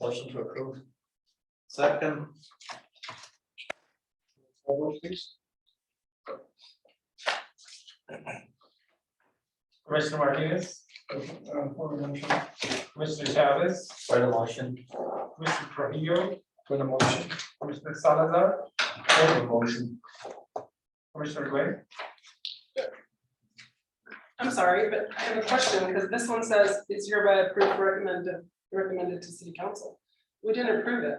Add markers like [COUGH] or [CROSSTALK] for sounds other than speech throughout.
Motion to approve. Second. Roll call, please. Commissioner Martinez, Uh, for the motion. Commissioner Chavez, For the motion. Commissioner Trujillo, For the motion. Commissioner Salazar, For the motion. Commissioner Gray. I'm sorry, but I have a question, because this one says it's hereby approved, recommended, recommended to city council. We didn't approve it.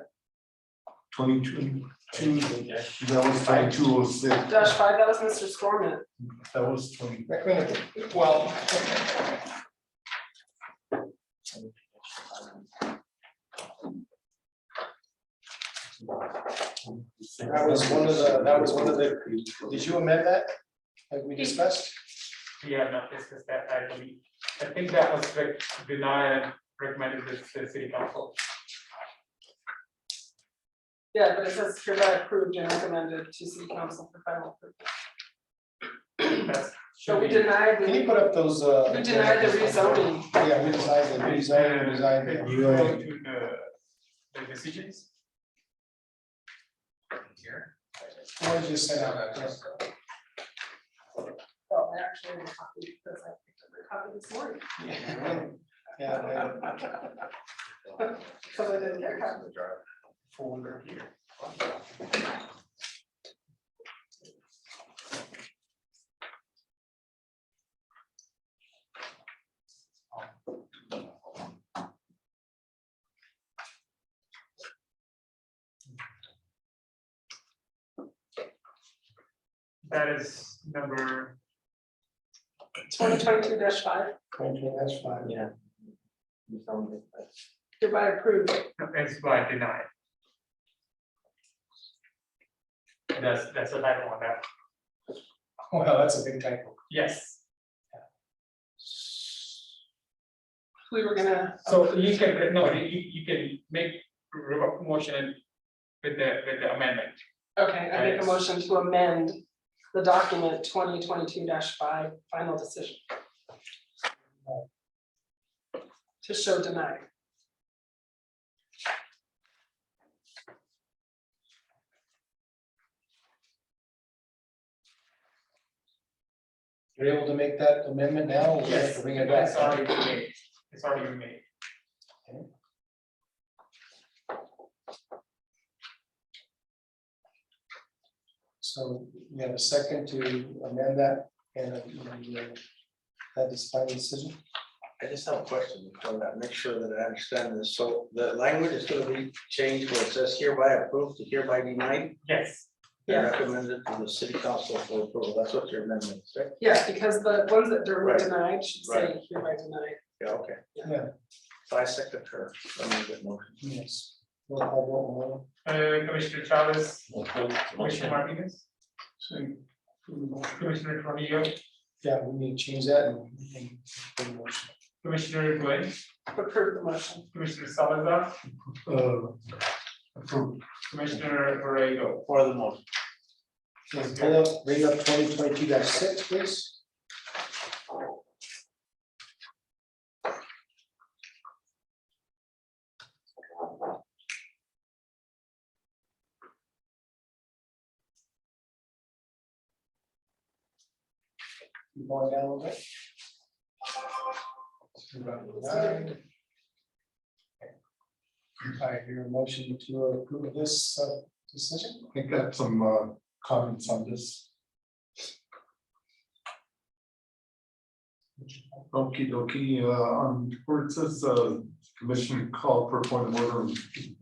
Twenty-two, two, that was five two oh six. Dash five, that was Mr. Scorman. That was twenty. Well. That was one of the, that was one of the, did you amend that? Like we discussed? Yeah, no, this is that, I believe. I think that was re- denied and recommended to the city council. Yeah, but it says hereby approved and recommended to city council for final approval. That's. So we should be- denied, Can you the put up those, uh? we denied the rezoning. Yeah, we denied the rezoning, we denied Can the- you go to the, the decisions? Here. Or just sent out that. [LAUGHS] Well, I actually have a copy because I picked up my copy this morning, Yeah, man. because I didn't get a copy. Folder here. That is number, Twenty twenty-two dash five, Okay, that's fine. Yeah. hereby approved. that's by denied. That's, that's the title on that, Well, that's a big typo. yes. We were gonna, So you can, no, you, you can make re- motion with the, with the amendment. okay, I make a motion to amend the document twenty twenty-two dash five, final decision. To show denied. You're able to make that amendment now? or we have to Bring it back. It's already been made, it's already been made. So we have a second to amend that and uh, that is final decision. I just have a question before that, make sure that I understand this. So the language is gonna be changed where it says hereby approved to hereby denied. Yes, and Yeah. Recommended to the city council for approval. That's what your amendment is, right? Yeah, because the ones that were Right. denied should say hereby denied. Yeah, okay. Yeah. So I second her. amendment motion. Yes. Roll call vote, Maloney. uh, Commissioner Chavez, Commissioner Martinez, Commissioner Trujillo, Yeah, we need to change that and. and put a motion. Commissioner Gray, Approve the motion. Commissioner Salazar, Uh, Commissioner Borrego. For the motion. Yes, Pull up, bring up twenty twenty-two six, please. Keep Going down a little bit. All right, your motion to approve this uh, decision? I think I have some uh, comments on this. Okie dokie, uh, on, where it says, uh, commission called for point of order,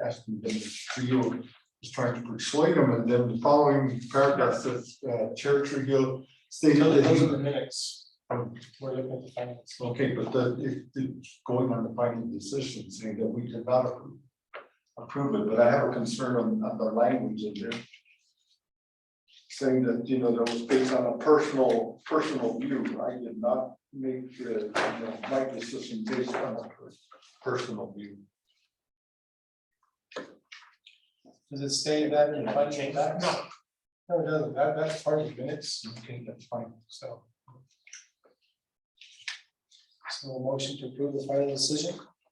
asking them to you, is trying to persuade them, and then the following paragraph says, uh, Chair Trujillo stated Those that those he are the minutes. Um, We're looking at the finance. Okay, but the, it, it's going on the final decision, saying that we did not approve. Approve it, but I have a concern on, on the language in there. Saying that, you know, that was based on a personal, personal view, I did not make, uh, you know, my decision based on a per- personal view. Does it say that in the finance? docs? No. No, it doesn't. That, that's part of the minutes. Okay, that's fine, so. So a motion to approve the final decision.